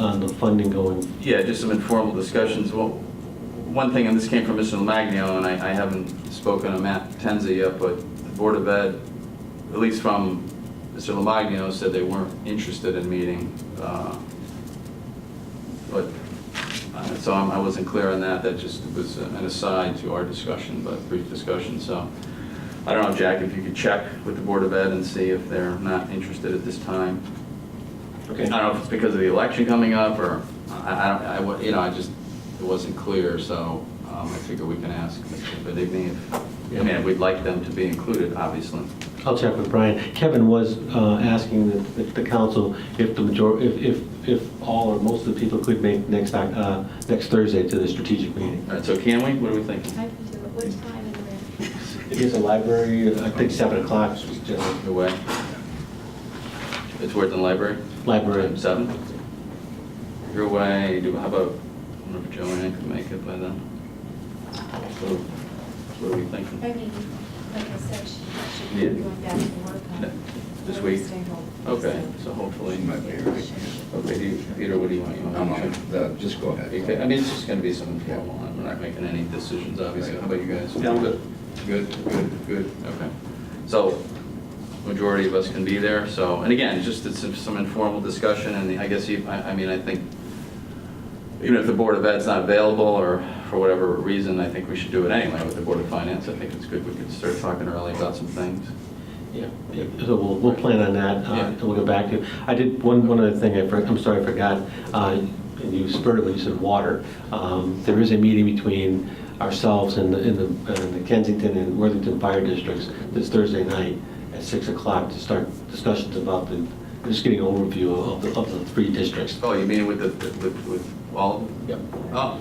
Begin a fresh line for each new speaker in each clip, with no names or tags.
on the funding going,
Yeah, just some informal discussions. Well, one thing, and this came from Mr. Lomagno, and I I haven't spoken to Matt Tenza yet, but the Board of Ed, at least from Mr. Lomagno, said they weren't interested in meeting. uh, But, uh, so I'm- I wasn't clear on that. That just was an aside to our discussion, but brief discussion, so. I don't know, Jack, if you could check with the Board of Ed and see if they're not interested at this time. I
okay,
don't know if it's because of the election coming up, or, I, I don't, I, wa- you know, I just, it wasn't clear, so um, I figure we can ask Mr. Benigni if, I mean, we'd like them to be included, obviously.
I'll check with Brian. Kevin was uh, asking the- the the council if the major, if, if, if all or most of the people could make next, Oc- uh, next Thursday to the strategic meeting.
All right, so can we, what are we thinking?
I can do it. What time and where?
Here's a library, I think 7 o'clock, was general
Your way? It's worth in library?
library.
Seven? Your way, do, how about, I wonder if Joanne can make it by then? So, what are we thinking?
I mean, like I said, she she
Yeah.
should be going back to work
No,
on.
this week?
Stay home.
Okay, so hopefully,
It might be early.
okay, do you- Peter, what do you want? You want?
I'm on, uh, just go ahead.
Okay, I mean, it's just gonna be some informal, I'm not making any decisions, obviously, how about you guys?
Yeah, I'm good.
Good, good, good, okay. So, majority of us can be there, so, and again, just it's some informal discussion, and I guess, you- I, I mean, I think, even if the Board of Ed's not available, or for whatever reason, I think we should do it anyway with the Board of Finance, I think it's good, we could start talking early about some things.
Yeah, yeah, so we'll, we'll plan on that, uh,
Yeah.
and we'll go back to, I did, one, one other thing, I, for- I'm sorry, I forgot, uh, and you spurred it when you said water. Um, There is a meeting between ourselves and the, and the- and the Kensington and Worthington Fire Districts this Thursday night at 6 o'clock to start discussions about the, just getting an overview of the, of the three districts,
Oh, you mean with the, with, with all?
Yep.
Oh,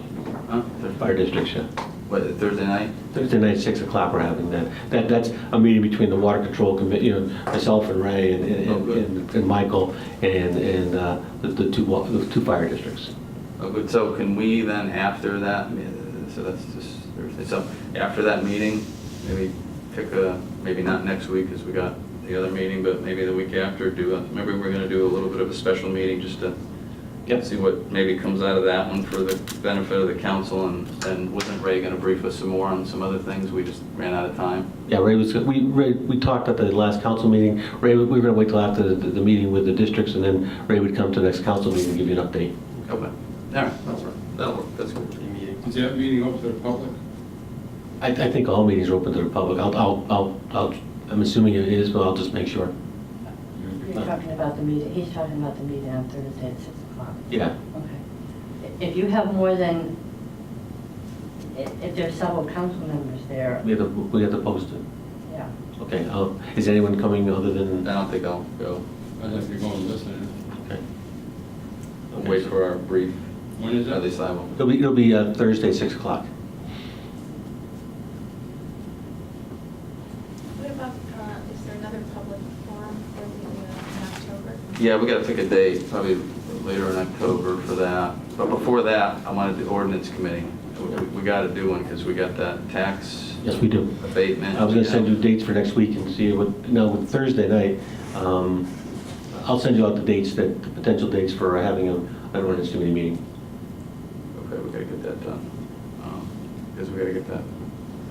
huh, Thur-
fire districts, yeah.
what, Thursday night?
Thursday night, 6 o'clock, we're having that. That, that's a meeting between the Water Control Committee, you know, myself and Ray and,
Oh,
and-
good.
and and Michael and, and uh, the the two, wa- the two fire districts.
Oh, good, so can we then, after that, uh, so that's just Thursday, so after that meeting, maybe pick a, maybe not next week, because we got the other meeting, but maybe the week after, do, a- maybe we're gonna do a little bit of a special meeting, just to
Yep.
see what maybe comes out of that one for the benefit of the council, and, and wasn't Ray gonna brief us some more on some other things, we just ran out of time?
Yeah, Ray was, we, Ray, we talked at the last council meeting, Ray, we were gonna wait till after the, the meeting with the districts, and then Ray would come to the next council meeting and give you an update.
Okay, all right, that's all right, that'll work, that's good.
Is that meeting open to the public?
I, I think all meetings are open to the public, I'll, I'll, I'll, I'll- I'm assuming it is, but I'll just make sure.
You're talking about the meeting, he's talking about the meeting on Thursday at 6 o'clock.
Yeah.
Okay. If you have more than, if if there's several council members there,
We have to, we have to post it.
yeah.
Okay, um, is anyone coming other
I
than?
don't think I'll go,
I'd like to go and listen.
Okay.
I'll wait for our brief,
When is
at
that?
least I will.
It'll be, it'll be uh, Thursday, 6 o'clock.
What about, uh, is there another public forum for the, uh, in October?
Yeah, we gotta pick a date, probably later in October for that. But before that, I wanted the ordinance committee. We- We gotta do one, because we got that tax
Yes, we do.
abatement.
I was going to send you dates for next week and see what, no, with Thursday night, um, I'll send you out the dates that, the potential dates for having a- an ordinance committee meeting.
Okay, we gotta get that done. Because we gotta get that.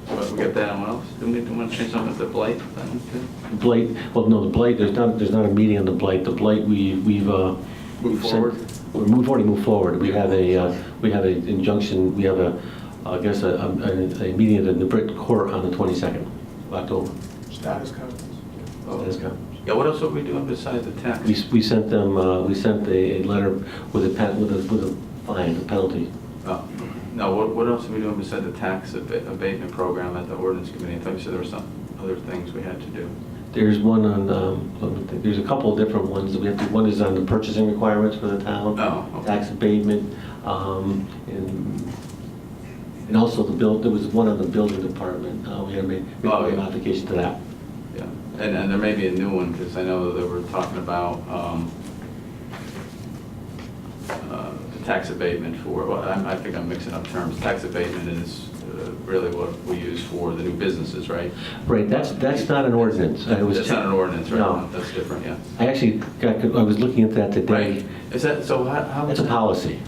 But we got that, and what else? Didn't we, didn't we change something with the blight? thing, too?
The Blight, well, no, the Blight, there's not, there's not a meeting on the Blight. The Blight, we, we've. uh,
Moved
sent-
forward?
We're move- already moved forward. We have a, uh, we have an injunction, we have a, I guess, a, a a meeting at the Newbury Court on the 22nd of October.
Status conference.
Oh.
Status quo.
Yeah, what else are we doing besides the tax?
We, we sent them, uh, we sent a, a letter with a pen, with a, with a fine, a penalty.
Oh, No, what, what else are we doing besides the tax abate- abatement program at the ordinance committee? I thought you said there were some other things we had to do.
There's one on, um, let me think, there's a couple of different ones that we have to, one is on the purchasing requirements for the town.
Oh, okay.
Tax abatement, um, and, and also the bill, there was one on the building department, uh, we had to make we had to
Oh,
make a
yeah.
modification to that.
Yeah, and, and there may be a new one, because I know that we're talking about, um, uh, the tax abatement for, well, I, I think I'm mixing up terms. Tax abatement is uh, really what we use for the new businesses, right?
Right, that's, that's not an ordinance. I was-
That's not an ordinance, right?
No.
That's different, yeah.
I actually got, I was looking at that today.
Right. Is that, so how? how-
It's a policy.